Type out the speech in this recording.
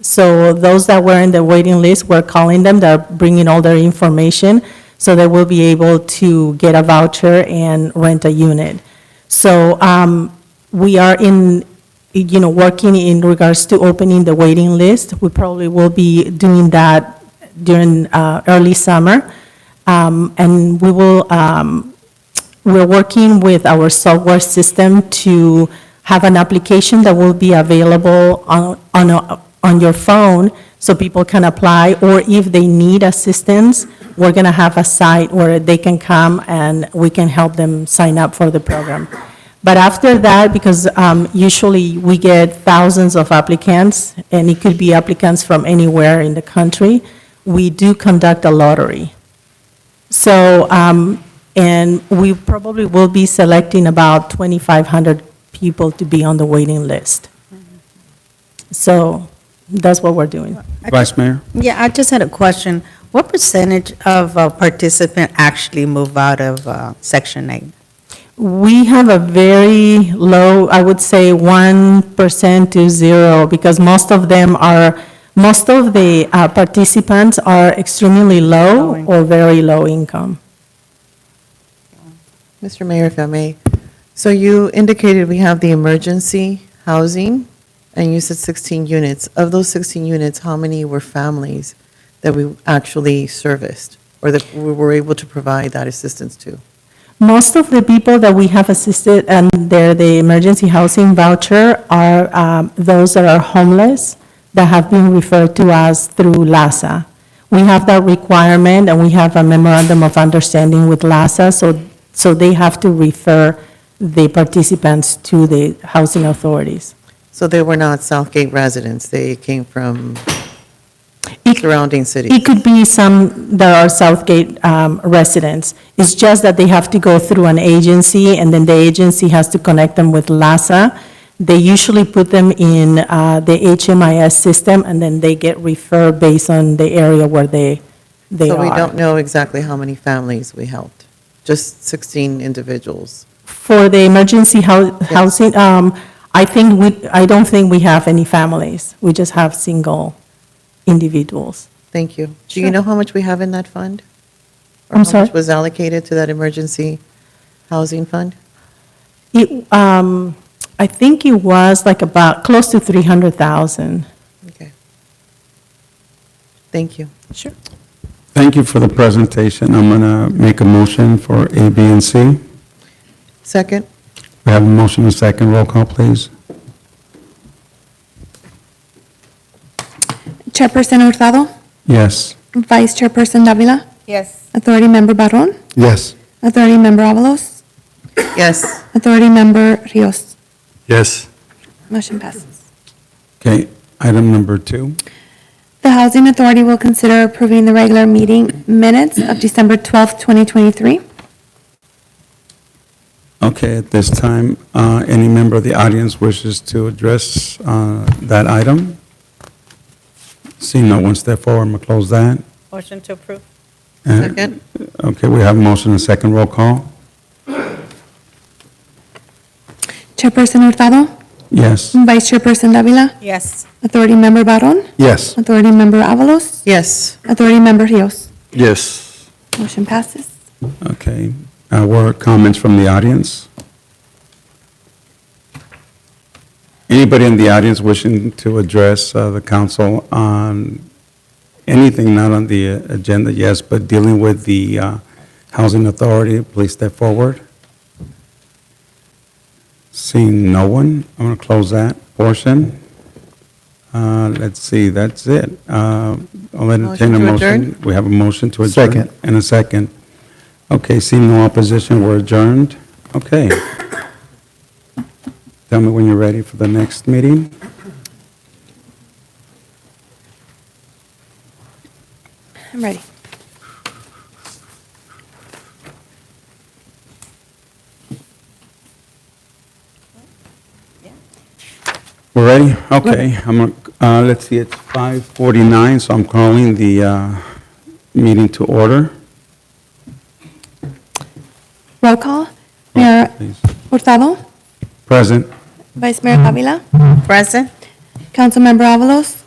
So those that were in the waiting list, we're calling them, they're bringing all their information, so they will be able to get a voucher and rent a unit. So um, we are in, you know, working in regards to opening the waiting list. We probably will be doing that during uh, early summer. Um, And we will um, we're working with our software system to have an application that will be available on, on, a- on your phone so people can apply, or if they need assistance, we're going to have a site where they can come and we can help them sign up for the program. But after that, because um, usually we get thousands of applicants, and it could be applicants from anywhere in the country, we do conduct a lottery. So, um, and we probably will be selecting about 2,500 people to be on the waiting list. So that's what we're doing. Vice Mayor? Yeah, I just had a question. What percentage of uh, participant actually move out of uh, Section 8? We have a very low, I would say 1% to zero, because most of them are, most of the uh, participants are extremely Low low income. or very low income. Mr. Mayor, if I may, so you indicated we have the emergency housing, and you said 16 units. Of those 16 units, how many were families that we actually serviced, or that we were able to provide that assistance to? Most of the people that we have assisted and they're the emergency housing voucher are um, those that are homeless that have been referred to us through LASA. We have that requirement and we have a memorandum of understanding with LASA, so, so they have to refer the participants to the housing authorities. So they were not Southgate residents, they came from It- surrounding cities. It could be some that are Southgate um, residents. It's just that they have to go through an agency, and then the agency has to connect them with LASA. They usually put them in uh, the HMIS system, and then they get referred based on the area where they, they So we don't are. know exactly how many families we helped, just 16 individuals. For the emergency hou- housing, um, I think we, I don't think we have any families. We just have single individuals. Thank you. Do Sure. you know how much we have in that fund? I'm Or how sorry? much was allocated to that emergency housing fund? It, um, I think it was like about close to 300,000. Okay. Thank you. Sure. Thank you for the presentation. I'm going to make a motion for A, B, and C. Second? We have a motion and a second. Roll call, please. Chairperson Hurtado, Yes. Vice Chairperson Davila, Yes. Authority Member Barron, Yes. Authority Member Avalos, Yes. Authority Member Rios. Yes. Motion passes. Okay, item number two. The Housing Authority will consider approving the regular meeting minutes of December 12th, 2023. Okay, at this time, uh, any member of the audience wishes to address uh, that item? Seeing no one step forward, I'm going to close that. Motion to approve? Uh, Second? Okay, we have a motion and a second. Roll call. Chairperson Hurtado, Yes. Vice Chairperson Davila, Yes. Authority Member Barron, Yes. Authority Member Avalos, Yes. Authority Member Rios. Yes. Motion passes. Okay, uh, were comments from the audience? Anybody in the audience wishing to address uh, the council on anything not on the uh, agenda, yes, but dealing with the uh, Housing Authority, please step forward. Seeing no one, I'm going to close that portion. Uh, Let's see, that's it. Uh, I'll entertain a Motion to motion. adjourn? We have a motion to adjourn. Second. And a second. Okay, seeing no opposition, we're adjourned. Okay. Tell me when you're ready for the next meeting. I'm ready. We're ready? Okay, I'm, gonna- uh, let's see, it's 5:49, so I'm calling the uh, meeting to order. Roll call. Mayor Please. Hurtado, Present. Vice Mayor Davila, Present? Councilmember Avalos,